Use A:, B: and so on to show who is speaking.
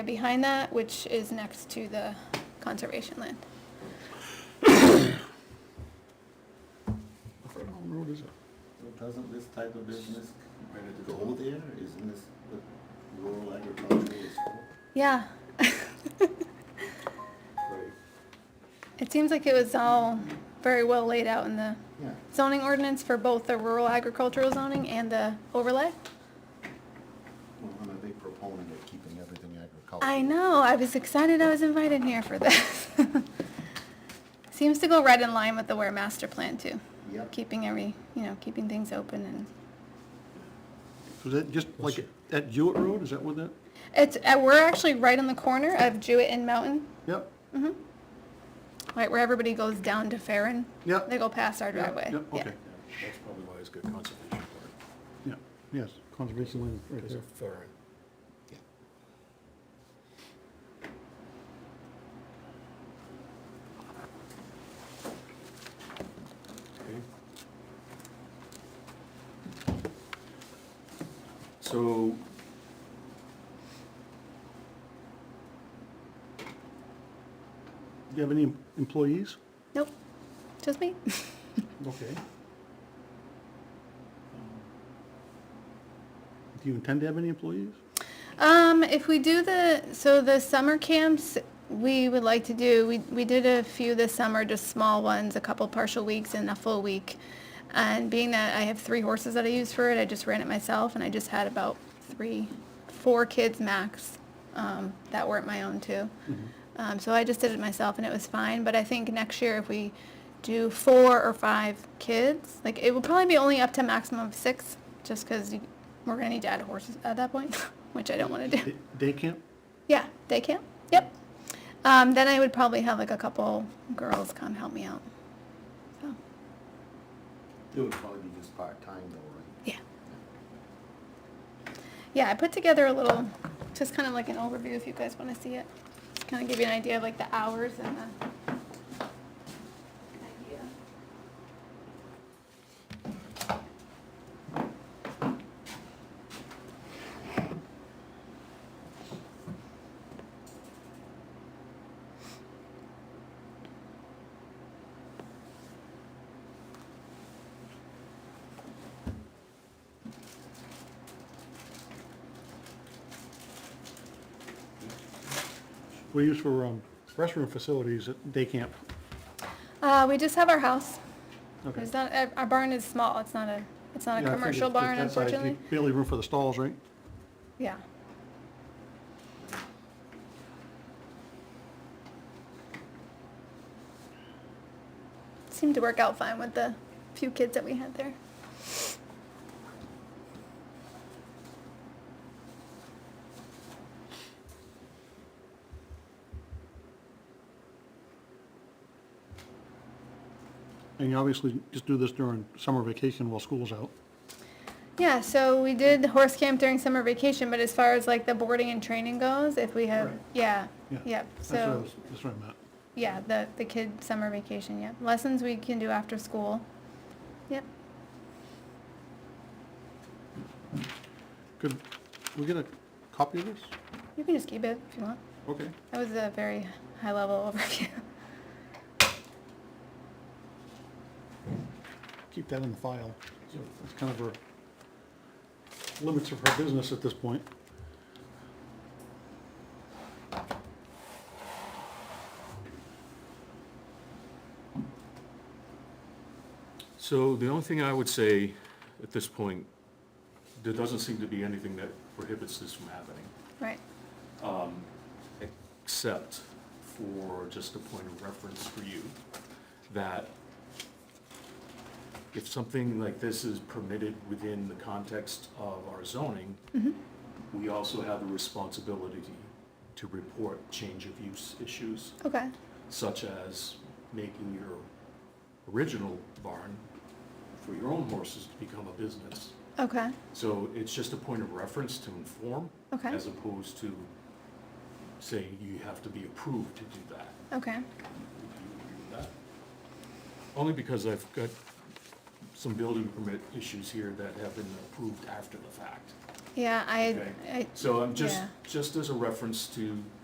A: behind that, which is next to the conservation land.
B: What road is it?
C: So Doesn't this type of business ready to go there? Isn't this what rural agriculture is for?
A: Yeah,
C: Right.
A: it seems like it was all very well laid out in the
C: Yeah,
A: zoning ordinance for both the rural agricultural zoning and the overlay.
C: well, I'm a big proponent of keeping everything agricultural.
A: I know, I was excited I was invited here for this. Seems to go right in line with the Ware master plan too,
C: Yep.
A: keeping every, you know, keeping things open and,
B: Is that just like at Jewett Road, is that what that,
A: it's, uh, we're actually right on the corner of Jewett and Mountain,
B: yep,
A: right where everybody goes down to Farren.
B: Yep.
A: They go past our
B: yep,
A: driveway.
B: yep,
A: Yeah.
B: okay,
D: That's probably why it's good conservation part,
B: yeah, yes, conservation land right
D: because
B: there.
D: of Farren. Okay. So.
B: Do you have any employees? Um,
A: Nope, just me.
B: Okay. Do you intend to have any employees?
A: Um, if we do the, so the summer camps, we would like to do, we, we did a few this summer, just small ones, a couple partial weeks and a full week. And being that I have three horses that I use for it, I just ran it myself and I just had about three, four kids max, um, that weren't my own too. Um, so I just did it myself and it was fine, but I think next year if we do four or five kids, like it will probably be only up to maximum of six, just because we're gonna need to add horses at that point, which I don't want to do.
B: Day- Day camp?
A: Yeah, day camp. Yep. Um, then I would probably have like a couple girls come help me out. So,
C: It would probably be just part-time though,
A: yeah. Yeah, I put together a little, just kind of like an overview if you guys want to see it. Just kind of give you an idea of like the hours and the. Idea.
B: We use for um, restroom facilities at day camp.
A: Uh, we just have our house.
B: Okay.
A: There's not, uh, our barn is small, it's not a, it's not a
B: Yeah, I figured
A: commercial
B: that-
A: barn
B: that size, you
A: unfortunately.
B: Barely room for the stalls, right?
A: Yeah. Seemed to work out fine with the few kids that we had there.
B: And you obviously just do this during summer vacation while school's out.
A: Yeah, so we did horse camp during summer vacation, but as far as like the boarding and training goes, if we have,
B: Right.
A: yeah,
B: Yeah,
A: yep,
B: That's
A: so.
B: what I was- That's what I meant.
A: Yeah, the, the kid summer vacation, yeah. Lessons we can do after school. Yep.
B: Could we get a copy of this?
A: You can just keep it if you want.
B: Okay.
A: That was a very high level overview.
B: Keep that in the file. That's kind of her limits of her business at this point.
D: So the only thing I would say at this point, there doesn't seem to be anything that prohibits this from happening,
A: Right.
D: except for just a point of reference for you, that if something like this is permitted within the context of our zoning, we also have a responsibility to report change of use issues.
A: Okay.
D: such as making your original barn for your own horses to become a business.
A: Okay.
D: So it's just a point of reference to inform,
A: Okay.
D: as opposed to saying you have to be approved to do that.
A: Okay.
D: Do you agree with that? Only because I've got some building permit issues here that have been approved after the fact.
A: Yeah, I,
D: Okay.
A: I
D: So I'm just,
A: Yeah.
D: just as a reference to